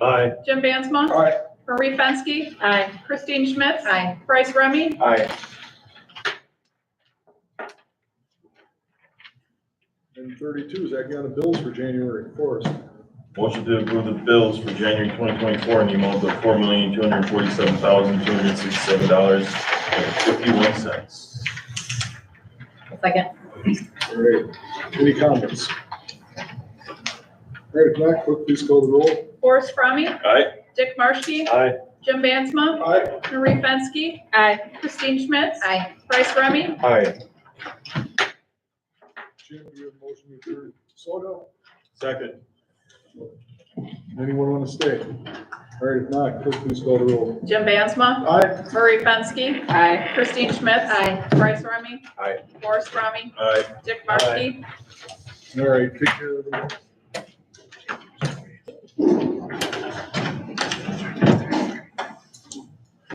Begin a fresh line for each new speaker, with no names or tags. Aye.
Jim Bansma.
Aye.
Marie Fenske.
Aye.
Christine Schmitz.
Aye.
Bryce Remy.
Aye.
And thirty-two is acting on the bills for January first.
Motion to approve the bills for January 2024 in the amount of four million, two hundred forty-seven thousand, two hundred sixty-seven dollars and fifty-one cents.
Second.
All right, any comments? All right, if not, clerk, please call the roll.
Forrest Fromme.
Aye.
Dick Marshke.
Aye.
Jim Bansma.
Aye.
Marie Fenske.
Aye.
Christine Schmitz.
Aye.
Bryce Remy.
Aye.
Jim, do you have a motion to adjourn? So
Second.
no. Anyone want to stay? All right, if not, clerk, please call the roll.
Jim Bansma.
Aye.
Marie Fenske.
Aye.
Christine Schmitz.
Aye.
Bryce Remy.
Aye.
Forrest Fromme.
Aye.
Dick Marshke.
All right, take care, everyone.